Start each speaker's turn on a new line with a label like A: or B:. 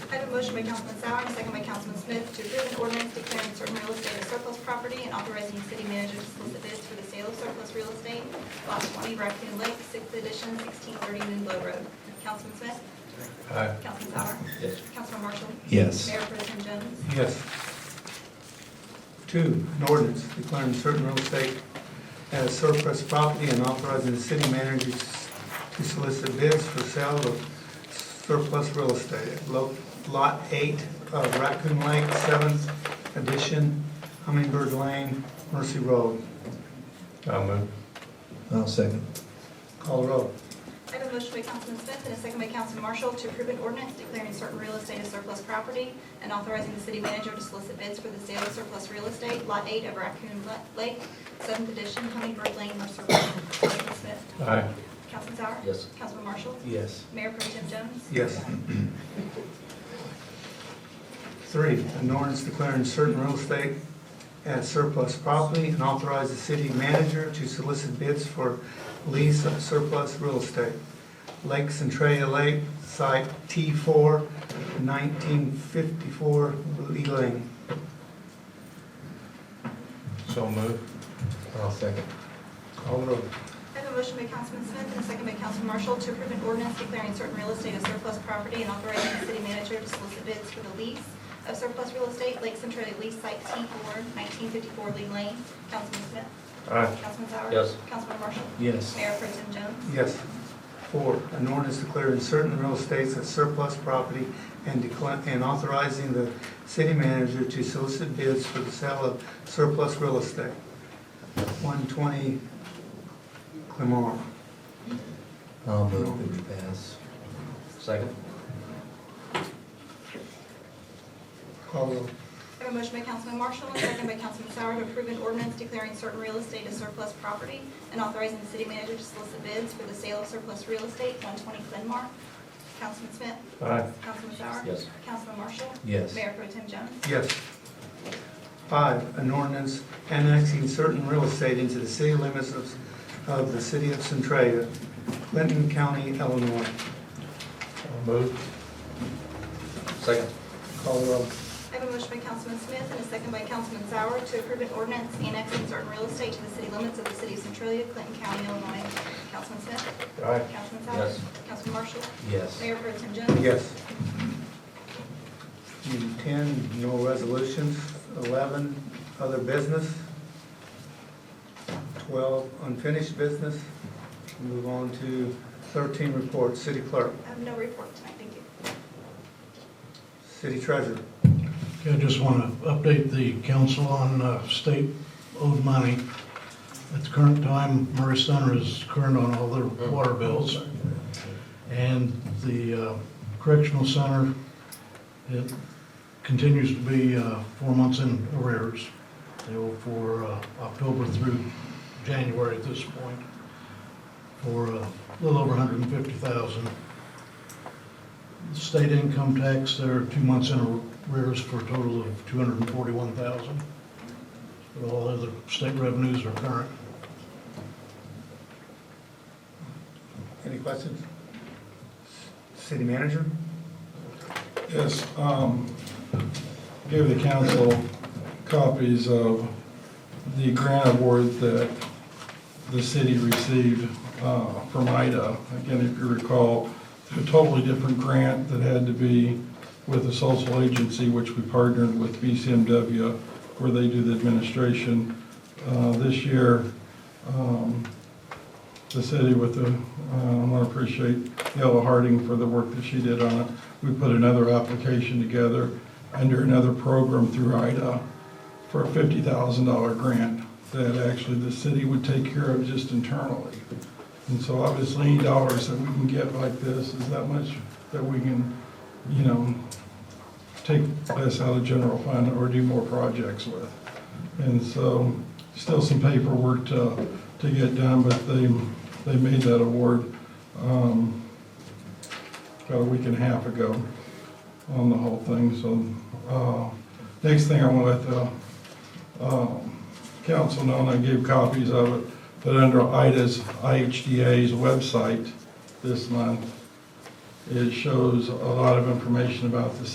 A: Motion by Councilman Sauer, second by Councilman Smith, to approve an ordinance declaring certain real estate as surplus property and authorizing the city manager to solicit bids for the sale of surplus real estate, lot 20 Raccoon Lake, 6th edition, 1630 Moonblow Road. Councilman Smith?
B: Aye.
A: Councilman Sauer?
B: Yes.
A: Councilman Marshall?
C: Yes.
A: Mayor Pro Tem Jones?
D: Yes. Two, an ordinance declaring certain real estate as surplus property and authorizing the city manager to solicit bids for sale of surplus real estate. Lo- Lot eight of Raccoon Lake, seventh edition, Hummingbird Lane, Mercy Road,
B: I'll move.
C: I'll second.
D: Call Road.
A: I have a motion by Councilman Smith and a second by Councilman Marshall to approve an ordinance declaring certain real estate as surplus property and authorizing the city manager to solicit bids for the sale of surplus real estate, Lot 8 of Raccoon Lake, 7th edition, Hummingbird Lane, Mercer Road. Councilman Smith?
B: Aye.
A: Councilman Sauer?
B: Yes.
A: Councilman Marshall?
C: Yes.
A: Mayor Pro Tem Jones?
D: Yes. Three, an ordinance declaring certain real estate as surplus property and authorize the city manager to solicit bids for lease of surplus real estate. Lake Centralia Lake, site T4, 1954 Lee Lane.
B: So move.
C: I'll second.
D: Call the roll.
A: I have a motion by Councilman Smith and a second by Councilman Marshall to approve an ordinance declaring certain real estate as surplus property and authorizing the city manager to solicit bids for the lease of surplus real estate, Lake Centralia Lease Site T4, 1954 Lee Lane. Councilman Smith?
B: Aye.
A: Councilman Sauer?
B: Yes.
A: Councilman Marshall?
C: Yes.
A: Mayor Pro Tem Jones?
D: Yes. Four, an ordinance declaring certain real estates as surplus property and decla- and authorizing the city manager to solicit bids for the sale of surplus real estate. 120 Clemore.
C: I'll move that we pass.
B: Second.
D: Call roll.
A: I have a motion by Councilman Marshall and a second by Councilman Sauer to approve an ordinance declaring certain real estate as surplus property and authorizing the city manager to solicit bids for the sale of surplus real estate, 120 Glenmark. Councilman Smith?
B: Aye.
A: Councilman Sauer?
B: Yes.
A: Councilman Marshall?
C: Yes.
A: Mayor Pro Tem Jones?
D: Yes. Five, an ordinance annexing certain real estate into the city limits of of the city of Centralia, Clinton County, Illinois.
B: I'll move. Second.
D: Call roll.
A: I have a motion by Councilman Smith and a second by Councilman Sauer to approve an ordinance annexing certain real estate to the city limits of the city of Centralia, Clinton County, Illinois. Councilman Smith?
B: Aye.
A: Councilman Sauer?
B: Yes.
A: Councilman Marshall?
C: Yes.
A: Mayor Pro Tem Jones?
D: Yes. Item Ten, no resolutions. Eleven, other business. Twelve, unfinished business. Move on to thirteen, report, city clerk,
A: I have no report tonight, thank you.
D: city treasurer.
E: Okay, I just want to update the council on uh, state owed money. At the current time, Murray Center is current on all their water bills. And the uh, correctional center, it continues to be uh, four months in arrears. They owe for uh, October through January at this point, for uh, a little over 150,000. State income tax, they're two months in arrears for a total of two hundred and forty-one thousand. But all other state revenues are current.
D: Any questions? City manager?
F: Yes, um, give the council copies of the grant award that the city received, uh, from IDA. Again, if you recall, a totally different grant that had to be with a social agency, which we partnered with BCMW, where they do the administration. Uh, this year, um, the city with the, uh, I want to appreciate Yella Harding for the work that she did on it. We put another application together under another program through IDA for a fifty thousand dollar grant that actually the city would take care of just internally. And so obviously, any dollars that we can get like this is that much that we can, you know, take less out of general fund or do more projects with. And so, still some paperwork to, to get done, but they, they made that award, um, about a week and a half ago on the whole thing, so, uh, next thing I want to let the, um, council know, and I gave copies of it, but under IDA's, IHDA's website this month, it shows a lot of information about the